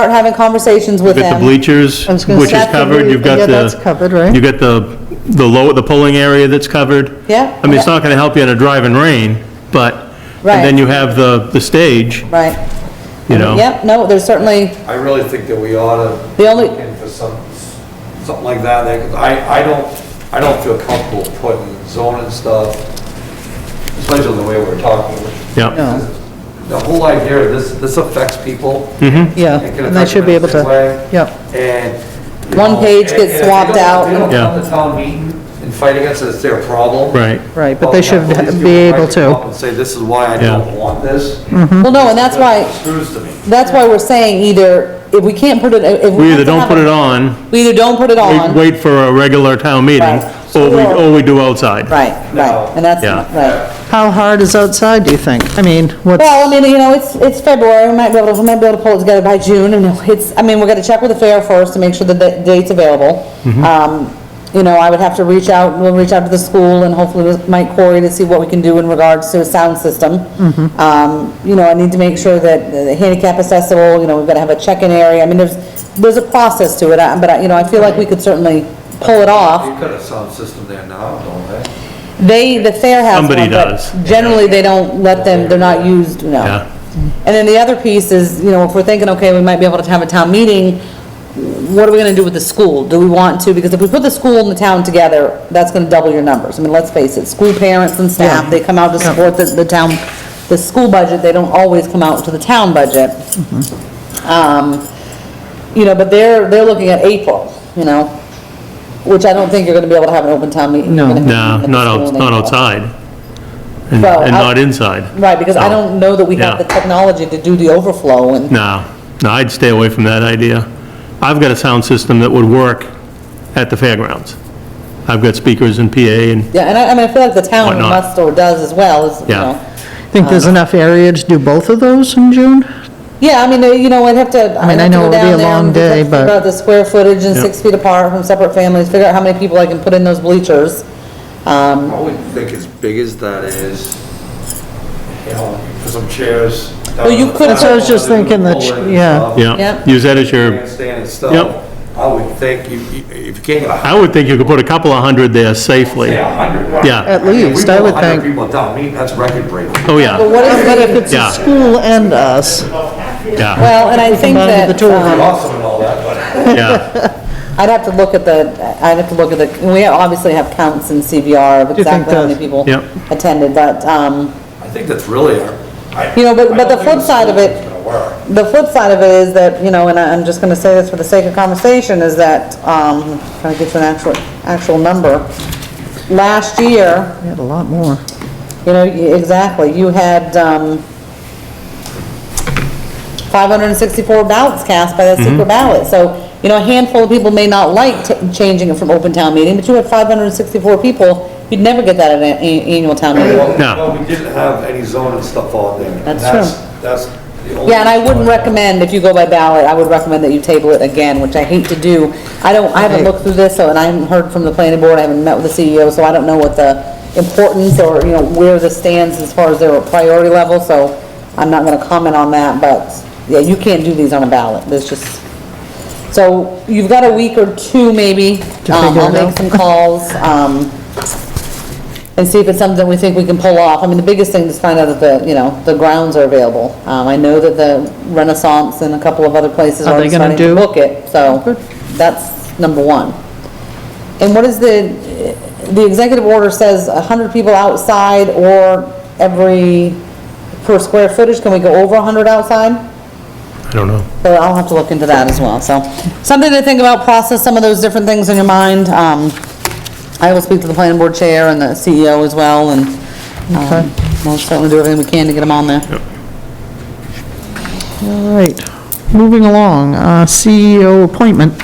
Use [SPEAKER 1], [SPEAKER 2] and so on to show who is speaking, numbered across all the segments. [SPEAKER 1] start having conversations with
[SPEAKER 2] You've got the
[SPEAKER 1] them.
[SPEAKER 2] bleachers,
[SPEAKER 3] I was gonna
[SPEAKER 2] which
[SPEAKER 3] say-
[SPEAKER 2] is
[SPEAKER 1] That's the
[SPEAKER 2] covered,
[SPEAKER 1] blue-
[SPEAKER 2] you've got
[SPEAKER 3] yeah,
[SPEAKER 2] the...
[SPEAKER 3] that's covered, right?
[SPEAKER 2] You've got the, the low, the polling area that's covered.
[SPEAKER 1] Yeah.
[SPEAKER 2] I mean, it's not gonna help you in a driving rain, but, and
[SPEAKER 1] Right.
[SPEAKER 2] then you have the, the stage,
[SPEAKER 1] Right.
[SPEAKER 2] you know?
[SPEAKER 1] Yep, no, there's certainly,
[SPEAKER 4] I really think that we ought to.
[SPEAKER 1] The only-
[SPEAKER 4] look Into some, something like that, like, 'cause I, I don't, I don't feel comfortable putting zoning stuff, especially the way we're talking.
[SPEAKER 2] Yep,
[SPEAKER 3] No,
[SPEAKER 4] The whole idea, of this, this affects people.
[SPEAKER 3] yeah,
[SPEAKER 4] It can
[SPEAKER 3] Hmm. and they
[SPEAKER 4] affect
[SPEAKER 3] should be
[SPEAKER 4] them
[SPEAKER 3] able
[SPEAKER 4] in a
[SPEAKER 3] to,
[SPEAKER 4] way.
[SPEAKER 3] yeah,
[SPEAKER 4] And. you
[SPEAKER 1] One
[SPEAKER 4] know,
[SPEAKER 1] page
[SPEAKER 4] and-
[SPEAKER 1] gets
[SPEAKER 4] and if they
[SPEAKER 1] swapped
[SPEAKER 4] don't- if
[SPEAKER 1] out.
[SPEAKER 4] They don't
[SPEAKER 2] Yeah.
[SPEAKER 4] come to town meeting and fight against it, it's their problem.
[SPEAKER 2] right.
[SPEAKER 3] right, but
[SPEAKER 4] Well,
[SPEAKER 3] they
[SPEAKER 4] at
[SPEAKER 3] should
[SPEAKER 4] least you
[SPEAKER 3] be
[SPEAKER 4] invite
[SPEAKER 3] able
[SPEAKER 4] them up
[SPEAKER 3] to.
[SPEAKER 4] And say, this is why I
[SPEAKER 2] Yeah.
[SPEAKER 4] don't want this.
[SPEAKER 1] well, no, and that's why,
[SPEAKER 4] Screws to me.
[SPEAKER 1] that's why we're saying either, if we can't put it, if we
[SPEAKER 2] We
[SPEAKER 1] have
[SPEAKER 2] either
[SPEAKER 1] to
[SPEAKER 2] don't
[SPEAKER 1] have
[SPEAKER 2] put
[SPEAKER 1] a-
[SPEAKER 2] it on,
[SPEAKER 1] We either don't put it
[SPEAKER 2] wait-
[SPEAKER 1] on,
[SPEAKER 2] wait for a regular town meeting,
[SPEAKER 1] Right.
[SPEAKER 2] or we, or we do outside.
[SPEAKER 1] right,
[SPEAKER 4] No.
[SPEAKER 1] right, and that's,
[SPEAKER 2] Yeah.
[SPEAKER 1] right.
[SPEAKER 3] How hard is outside, do you think? I mean, what's,
[SPEAKER 1] Well, I mean, you know, it's, it's February, we might be able to, we might be able to pull it together by June, and it's, I mean, we're gonna check with the fair first to make sure that the date's available. Um, you know, I would have to reach out, we'll reach out to the school and hopefully with Mike Corey to see what we can do in regards to a sound system. Um, you know, I need to make sure that the handicap accessible, you know, we've gotta have a check-in area, I mean, there's, there's a process to it, I- but I, you know, I feel like we could certainly pull it off.
[SPEAKER 4] You've got a sound system there now, don't they?
[SPEAKER 1] They, the fair has
[SPEAKER 2] Somebody
[SPEAKER 1] one, but
[SPEAKER 2] does.
[SPEAKER 1] Generally, they don't let them, they're not used, no.
[SPEAKER 2] Yeah.
[SPEAKER 1] And then the other piece is, you know, if we're thinking, okay, we might be able to have a town meeting, what are we gonna do with the school? Do we want to, because if we put the school and the town together, that's gonna double your numbers. I mean, let's face it, school parents and staff, they come out to support the, the town, the school budget, they don't always come out to the town budget. Um, you know, but they're, they're looking at April, you know, which I don't think you're gonna be able to have an open town meeting.
[SPEAKER 3] No.
[SPEAKER 1] You're gonna have to meet
[SPEAKER 2] No,
[SPEAKER 1] in
[SPEAKER 2] not
[SPEAKER 1] the
[SPEAKER 2] out,
[SPEAKER 1] school in
[SPEAKER 2] not
[SPEAKER 1] April.
[SPEAKER 2] outside, and,
[SPEAKER 1] Well,
[SPEAKER 2] and
[SPEAKER 1] out-
[SPEAKER 2] not inside.
[SPEAKER 1] Right, because I
[SPEAKER 2] So,
[SPEAKER 1] don't know that we have the
[SPEAKER 2] Oh. Yeah.
[SPEAKER 1] technology to do the overflow and,
[SPEAKER 2] No, no, I'd stay away from that idea. I've got a sound system that would work at the fairgrounds. I've got speakers and PA and,
[SPEAKER 1] yeah, and I, I mean, I feel like the town
[SPEAKER 2] Whatnot.
[SPEAKER 1] must or does as well, is, you
[SPEAKER 2] Yeah.
[SPEAKER 1] know.
[SPEAKER 3] think there's enough area to do both of those in June?
[SPEAKER 1] Yeah, I mean, uh, you know, I'd have to.
[SPEAKER 3] I
[SPEAKER 1] I'd
[SPEAKER 3] mean, I
[SPEAKER 1] have to
[SPEAKER 3] know
[SPEAKER 1] go
[SPEAKER 3] it would be
[SPEAKER 1] down
[SPEAKER 3] a
[SPEAKER 1] there and
[SPEAKER 3] long day,
[SPEAKER 1] figure
[SPEAKER 3] but-
[SPEAKER 1] out the square footage and six feet apart from separate families, figure out how many people I can put in those bleachers. Um,
[SPEAKER 4] I would think as big as that is, you know, for some chairs.
[SPEAKER 1] Well, you could-
[SPEAKER 3] That's what I was just thinking, that ch- yeah.
[SPEAKER 1] Yep.
[SPEAKER 2] yeah, use that as your,
[SPEAKER 4] Handstand and stuff.
[SPEAKER 2] Yep.
[SPEAKER 4] I would think you, you- if you can't get a,
[SPEAKER 2] I would think you could put a couple of hundred there safely.
[SPEAKER 4] say a hundred. right?
[SPEAKER 2] Yeah.
[SPEAKER 1] Uh,
[SPEAKER 3] At least, I would
[SPEAKER 4] We put a hundred
[SPEAKER 3] think.
[SPEAKER 4] people at town meeting, that's record breaking.
[SPEAKER 1] But
[SPEAKER 2] Oh, yeah,
[SPEAKER 1] what is,
[SPEAKER 3] But if it's
[SPEAKER 2] Yeah.
[SPEAKER 3] the school and us,
[SPEAKER 2] yeah,
[SPEAKER 1] well, and I think
[SPEAKER 3] combine the
[SPEAKER 1] that,
[SPEAKER 3] two of
[SPEAKER 1] um,
[SPEAKER 3] them.
[SPEAKER 4] Awesome and all that, but
[SPEAKER 2] yeah,
[SPEAKER 1] I'd have to look at the, I'd have to look at the, we obviously have counts in CVR of
[SPEAKER 3] you think
[SPEAKER 1] exactly how many
[SPEAKER 3] the-
[SPEAKER 1] people
[SPEAKER 2] Yep.
[SPEAKER 1] attended, but, um,
[SPEAKER 4] I think that's really our. I-
[SPEAKER 1] You know, but-
[SPEAKER 4] I
[SPEAKER 1] but the
[SPEAKER 4] don't think
[SPEAKER 1] flip
[SPEAKER 4] the
[SPEAKER 1] side of
[SPEAKER 4] school
[SPEAKER 1] it-
[SPEAKER 4] is gonna work.
[SPEAKER 1] the flip side of it is that, you know, and I- I'm just gonna say this for the sake of conversation, is that, um, trying to get to an actual, actual number. Last year,
[SPEAKER 3] we had a lot more.
[SPEAKER 1] you know, y- exactly, you had, um, five hundred and sixty-four ballots cast by that secret ballot, so, you know, a handful of people may not like t- changing it from open town meeting, but you had five hundred and sixty-four people, you'd never get that at an a- annual town meeting.
[SPEAKER 2] No.
[SPEAKER 4] Well, we didn't have any zoning stuff on there.
[SPEAKER 1] That's true.
[SPEAKER 4] That's the only.
[SPEAKER 1] Yeah, and I wouldn't
[SPEAKER 4] recommend.
[SPEAKER 1] recommend, if you go by ballot, I would recommend that you table it again, which I hate to do. I don't, I haven't looked through this, so, and I haven't heard from the planning board, I haven't met with the CEO, so I don't know what the importance or, you know, where this stands as far as their priority level, so I'm not gonna comment on that, but, yeah, you can't do these on a ballot, there's just, so you've got a week or two maybe.
[SPEAKER 3] To
[SPEAKER 1] Um,
[SPEAKER 3] figure
[SPEAKER 1] I'll
[SPEAKER 3] it
[SPEAKER 1] make
[SPEAKER 3] out.
[SPEAKER 1] some calls, um, and see if it's something we think we can pull off. I mean, the biggest thing is find out that the, you know, the grounds are available. Um, I know that the Renaissance and a couple of other places
[SPEAKER 3] Are
[SPEAKER 1] are
[SPEAKER 3] they
[SPEAKER 1] starting
[SPEAKER 3] gonna
[SPEAKER 1] to
[SPEAKER 3] do- Oh,
[SPEAKER 1] book it, so that's number one. And what is the, the executive order says a hundred people outside or every, per square footage, can we go over a hundred outside?
[SPEAKER 2] I don't know.
[SPEAKER 1] So I'll have to look into that as well, so. Something to think about, process some of those different things in your mind. Um, I will speak to the planning board chair and the CEO as well, and, um, we'll certainly do everything we can to get them on there.
[SPEAKER 3] All right, moving along, uh, CEO appointment.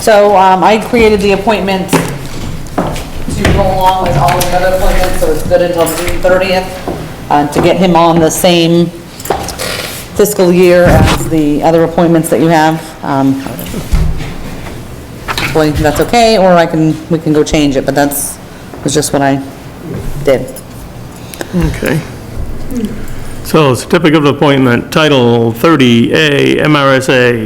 [SPEAKER 1] So, um, I created the appointment to go along with all the other appointments, so it's good until June thirtieth, uh, to get him on the same fiscal year as the other appointments that you have. Um, Hopefully, that's okay, or I can, we can go change it, but that's, was just what I did.
[SPEAKER 2] Okay. So certificate of appointment, Title 30A, MRSA,